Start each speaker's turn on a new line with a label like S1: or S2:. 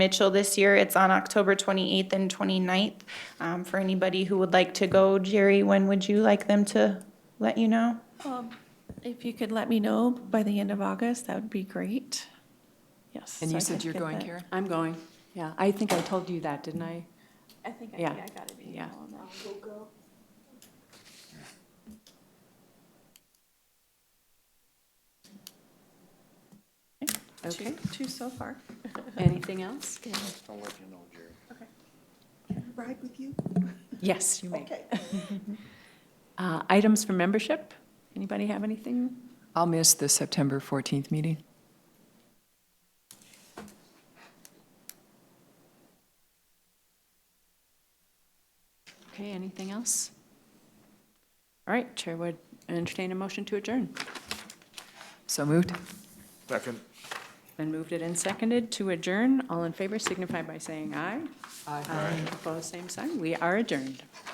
S1: Mitchell this year. It's on October 28th and 29th. Um, For anybody who would like to go, Jerry, when would you like them to let you know?
S2: Um, If you could let me know by the end of August, that would be great. Yes.
S3: And
S2: so
S3: you
S2: I
S3: said
S2: could
S3: you're
S2: get
S3: going,
S2: that.
S3: Karen? I'm going, yeah. I think I told you that, didn't I?
S2: I think, I
S3: Yeah.
S2: yeah, I got it.
S3: Yeah. Okay,
S2: Two, two so far.
S3: anything else?
S4: I'll let you know, Jerry.
S5: ride with you?
S3: Yes, you may.
S5: Okay.
S3: Uh, Items for membership? Anybody have anything?
S6: I'll miss the September 14th meeting.
S3: Okay, anything else? All right, Chair would entertain a motion to adjourn.
S6: So moved.
S4: Second.
S3: Been moved it and seconded to adjourn. All in favor signify by saying aye. Aye. Opposed, same sign. We are adjourned.